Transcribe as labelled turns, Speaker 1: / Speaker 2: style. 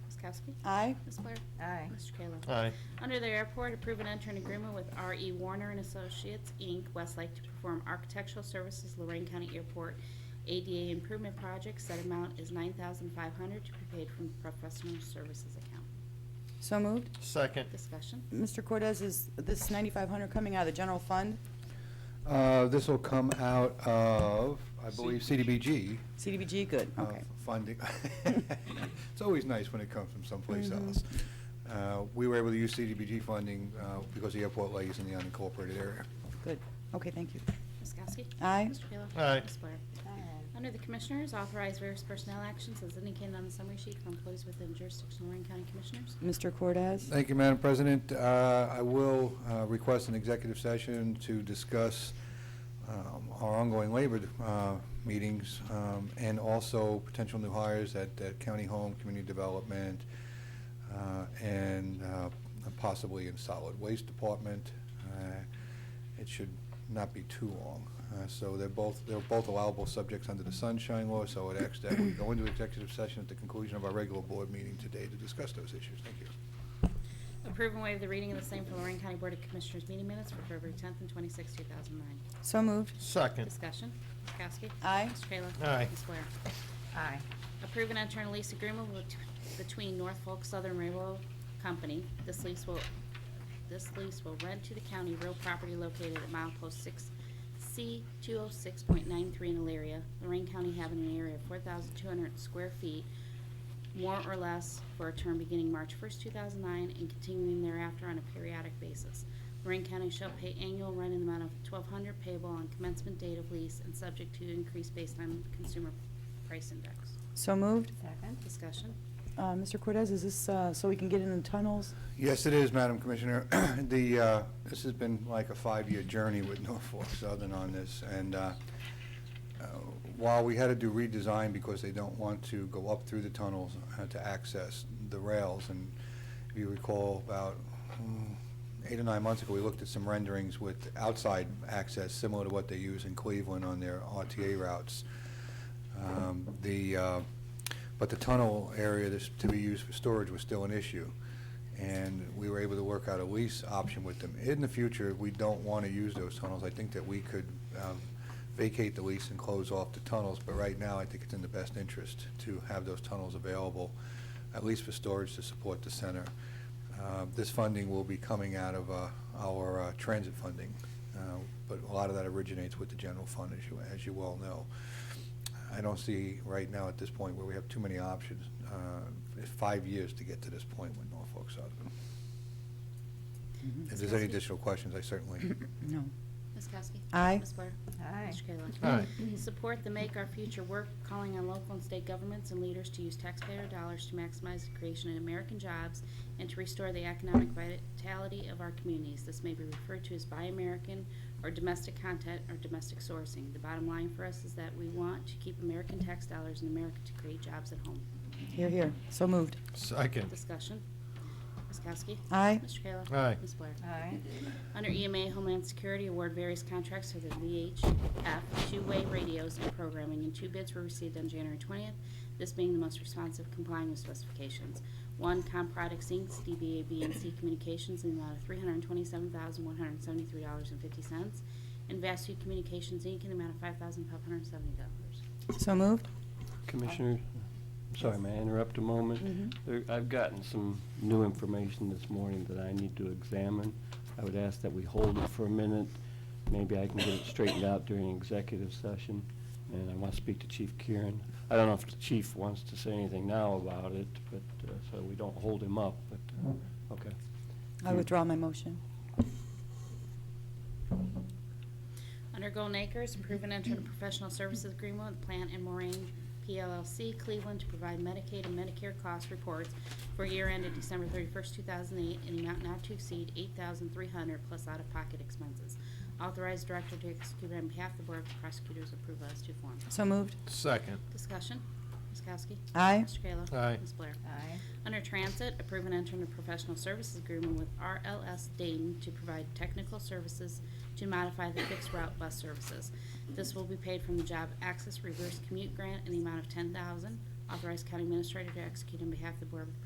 Speaker 1: Kowski?
Speaker 2: Aye.
Speaker 1: Ms. Blair?
Speaker 3: Aye.
Speaker 1: Mr. Kayla?
Speaker 4: Aye.
Speaker 1: Under the airport, approve an entered agreement with R.E. Warner and Associates, Inc., Westlake, to perform architectural services Lorraine County Airport ADA Improvement Project. Said amount is $9,500 to be paid from professional services account.
Speaker 2: So moved.
Speaker 4: Second.
Speaker 1: Discussion.
Speaker 2: Mr. Cortez, is this 9,500 coming out of the general fund,
Speaker 5: Uh, This will come out of, I believe, CDBG
Speaker 2: CDBG? Good,
Speaker 5: uh,
Speaker 2: okay.
Speaker 5: funding. It's always nice when it comes from someplace else. Uh, We were able to use CDBG funding uh, because the airport lays in the unincorporated area.
Speaker 2: Good. Okay, thank you.
Speaker 1: Ms. Kowski?
Speaker 2: Aye.
Speaker 1: Mr. Kayla?
Speaker 4: Aye.
Speaker 1: Ms. Blair?
Speaker 3: Aye.
Speaker 1: Under the Commissioners, authorize various personnel actions as indicated on the summary sheet for employees within jurisdiction of Lorraine County Commissioners.
Speaker 2: Mr. Cortez?
Speaker 5: Thank you, Madam President. Uh, I will uh, request an executive session to discuss um, our ongoing labor uh, meetings um, and also potential new hires at at County Home, Community Development, uh, and uh, possibly in Solid Waste Department. Uh, It should not be too long. Uh, So they're both, they're both allowable subjects under the Sunshine Law, so it asks that we go into executive session at the conclusion of our regular board meeting today to discuss those issues. Thank you.
Speaker 1: Approve and waive the reading of the same for Lorraine County Board of Commissioners meeting minutes for February 10th and 26th, 2009.
Speaker 2: So moved.
Speaker 4: Second.
Speaker 1: Discussion. Ms. Kowski?
Speaker 2: Aye.
Speaker 1: Mr. Kayla?
Speaker 4: Aye.
Speaker 1: Ms. Blair?
Speaker 3: Aye.
Speaker 1: Approve an internal lease agreement with- between Norfolk Southern Railroad Company. This lease will, this lease will rent to the county real property located at mile post six C two oh six point nine three in Elaria, Lorraine County having an area of four thousand two hundred square feet, more or less, for a term beginning March first, two thousand nine, and continuing thereafter on a periodic basis. Lorraine County shall pay annual rent in the amount of twelve hundred payable on commencement date of lease and subject to increase based on consumer price index.
Speaker 2: So moved.
Speaker 3: Second.
Speaker 1: Discussion.
Speaker 2: Uh, Mr. Cortez, is this uh, so we can get in the tunnels?
Speaker 5: Yes, it is, Madam Commissioner. The, uh, this has been like a five-year journey with Norfolk Southern on this, and uh, uh, while we had to do redesign because they don't want to go up through the tunnels uh, to access the rails, and if you recall, about mm, eight or nine months ago, we looked at some renderings with outside access, similar to what they use in Cleveland on their RTA routes. Um, The, uh, but the tunnel area that's to be used for storage was still an issue, and we were able to work out a lease option with them. In the future, if we don't want to use those tunnels, I think that we could um, vacate the lease and close off the tunnels, but right now, I think it's in the best interest to have those tunnels available, at least for storage to support the center. Uh, This funding will be coming out of uh, our uh, transit funding, uh, but a lot of that originates with the general fund, as you, as you well know. I don't see right now at this point where we have too many options. Uh, It's five years to get to this point with Norfolk Southern. If there's any additional questions, I certainly
Speaker 2: No.
Speaker 1: Ms. Kowski?
Speaker 2: Aye.
Speaker 1: Ms. Blair?
Speaker 3: Aye.
Speaker 1: Mr. Kayla?
Speaker 4: Aye.
Speaker 1: Support the Make Our Future Work, calling on local and state governments and leaders to use taxpayer dollars to maximize the creation of American jobs and to restore the economic vitality of our communities. This may be referred to as Buy American or domestic content or domestic sourcing. The bottom line for us is that we want to keep American tax dollars in America to create jobs at home.
Speaker 2: Here, here. So moved.
Speaker 4: Second.
Speaker 1: Discussion. Ms. Kowski?
Speaker 2: Aye.
Speaker 1: Mr. Kayla?
Speaker 4: Aye.
Speaker 1: Ms. Blair?
Speaker 3: Aye.
Speaker 1: Under EMA Homeland Security, award various contracts to the VHF two-way radios and programming, and two bids were received on January 20th, this being the most responsive complying with specifications. One, Comproducts Inc., DBA BNC Communications, in the amount of $327,173.50, and Vastu Communications Inc., in the amount of $5,570.
Speaker 2: So moved.
Speaker 6: Commissioner, I'm sorry, may I interrupt a moment? There- I've gotten some new information this morning that I need to examine. I would ask that we hold it for a minute. Maybe I can get it straightened out during executive session, and I want to speak to Chief Kieran. I don't know if the chief wants to say anything now about it, but, uh, so we don't hold him up, but, uh, okay.
Speaker 2: I withdraw my motion.
Speaker 1: Under Golden Acres, approve and enter a professional services agreement with Plant and Moraine PLLC Cleveland to provide Medicaid and Medicare cost reports for year ended December 31st, 2008, in the amount not to exceed 8300 plus out-of-pocket expenses. Authorized director to execute on behalf of the Board of Prosecutors, approval as to form.
Speaker 2: So moved.
Speaker 4: Second.
Speaker 1: Discussion, Ms. Kowski?
Speaker 2: Aye.
Speaker 1: Mr. Kayla?
Speaker 4: Aye.
Speaker 1: Ms. Blair?
Speaker 3: Aye.
Speaker 1: Under Transit, approve and enter into professional services agreement with RLS Dayton to provide technical services to modify the fixed route bus services. This will be paid from the Job Access Reverse Commute Grant in the amount of ten thousand. Authorized County Administrator to execute on behalf of the Board of